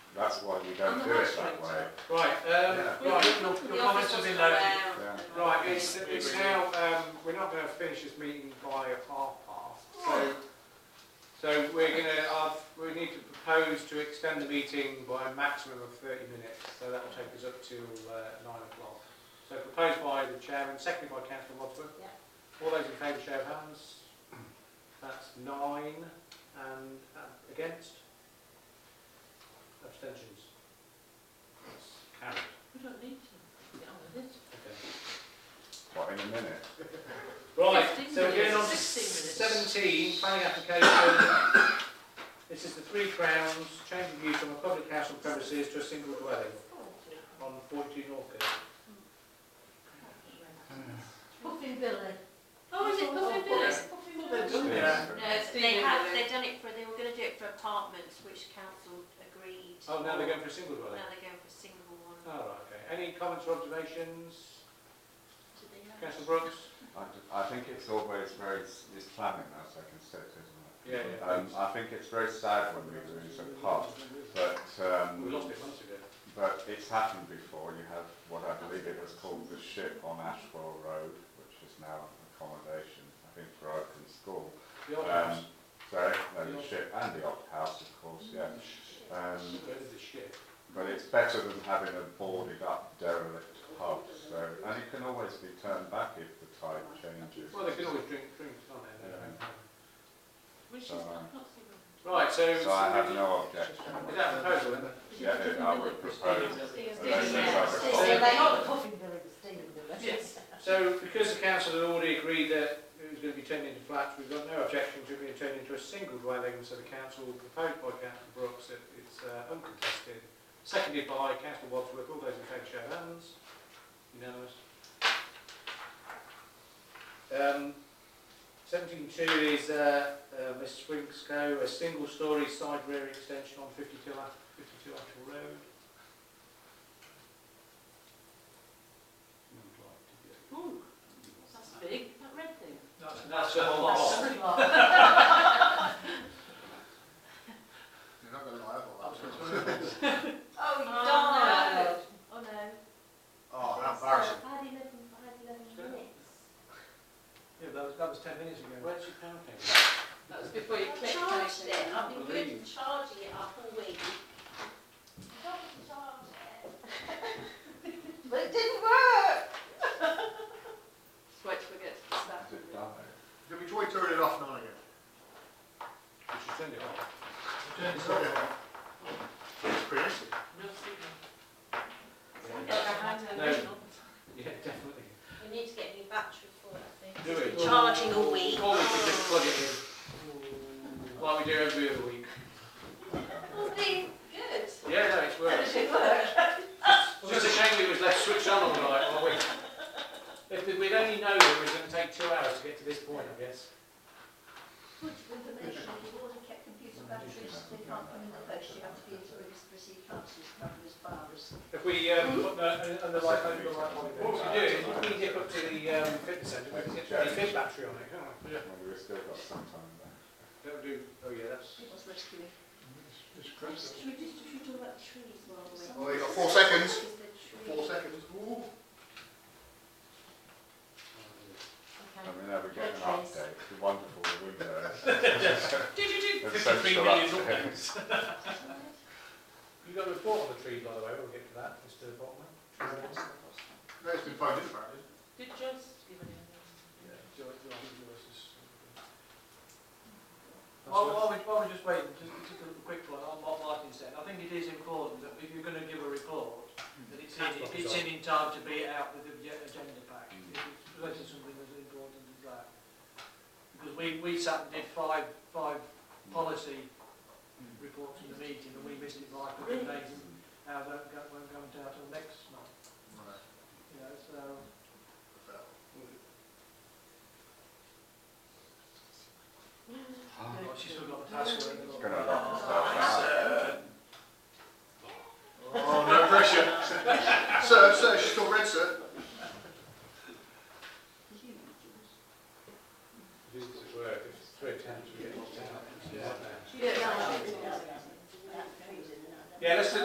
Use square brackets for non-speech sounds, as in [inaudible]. That's why we On don't the do it high that street way. side. Right, Yeah. um, right, your, The your office comments have was been noted. around. Yeah. Right, it's, it's now, um, we're not gonna finish this meeting by half past, so, so we're gonna, uh, we need to propose to extend the meeting by a maximum of thirty minutes, so that will take us up till, uh, nine o'clock. So proposed by the chairman, seconded by councillor Wadsworth. Yeah. All those in favour, show of hands. That's nine, and, uh, against? Abstentions? That's carried. We don't need to get on with it. Okay. What, in a minute? Right, 15 so we're getting on to minutes, 16 seventeen, planning application. This is the three crowns, change of use from a public council premises to a single dwelling on forty-two Norfolk. Puffin Billy. Oh, is it Puffin Billy? Oh, Yeah. No, they had, they done it for, they were gonna do it for apartments, which council agreed. Oh, now they're going for a single Now dwelling? they're going for a single Oh, one. right, okay. Any comments or observations? Do they have- Councillor Brooks? I, d- I think it's always very, s- it's planning that's a consent, isn't it? Yeah, yeah. Um, I think it's very sad when we lose a pub, but, We um, lost it months ago. but it's happened before. You have what I believe it was called the ship on Ashwell Road, which is now accommodation, I think, for Oakham School. The old Um, house. sorry, no, the ship and the odd house, of course, yeah. Um, Where did the ship? but it's better than having a boarded up derelict pub, so, and it can always be turned back if the tide changes. Well, they can always drink drinks on there. Which is, So, I um, can't see what- Right, so. So I have no objection. Is that a proposal then? Yeah, it- I would propose. Yes, yes, yes. So- They are the Puffin Billy, the Stephen Billy. Yes. So because the council had already agreed that it was going to be turned into flats, we've got no objection to it being turned into a single dwelling, so the council proposed by councillor Brooks that it's uh, uncontested, seconded by councillor Wadsworth, all those in favour show of hands, unanimous. Um, 17.2 is uh, uh, Miss Swingsco, a single storey side rear extension on 52, Ash- 52 Ashwell Road. Ooh, that's big, that red thing. That's, that's a lot. That's [laughs] a lot. You're not going to like all Oh, you Oh, don't Oh, no. uh, Oh, how embarrassing. I had eleven, I had eleven minutes. Yeah, that was, that was ten minutes ago. Where's your pound cake? That was before you clicked. Charged anything. it, I've been good at charging it up all week. But it didn't work. Wait till we get to the staff. Has it done it? Did we try to turn it off now again? You should send it off. It's not off. It's pretty easy. No signal. Yeah, Yeah. No. Yeah, definitely. We need to get a new battery for it, I think. Do it. Charging all week. Or we could just plug it in, like we do every other week. It's been [laughs] good. Yeah, no, it's worked. It worked. It's just a shame it was left switched on all night all week. If the- we'd only known it was going to take two hours to get to this point, I guess. Good with the nation, you've already kept computer batteries, they can't come in the post, you have to be into the city council, it's covered as far as. If we, um, put the, and the light over the light Mm-hmm. on it. What we do is if we nip up to the, um, fitness centre, we can get a fit battery on it, can't we? Yeah. Well, we've still got some time left. That'll do, oh yeah, that's. It was rescuing. Should we just, should we talk about trees while we're- Well, you've Oh, got four seconds. Is the tree- Four seconds. Ooh. I mean, there we get an update, the wonderful [laughs] windows. And Fifty-three social million update. updates. You've got a report on the tree, by the way, we'll get to that, Mr Botman. No, it's been phoned in, apparently. Did Joyce give an email? While, while, we, while we're just waiting, just, just a quick one on what Martin said, I think it is important that if you're going to give a report, that it's in, if it's in in time to be out with the ag- agenda pack, if Mm. it's related to something as important as that. Because we, we sat and did five, five policy reports in the meeting, and we missed it by a couple of days, and ours won't go, won't go out until next [laughs]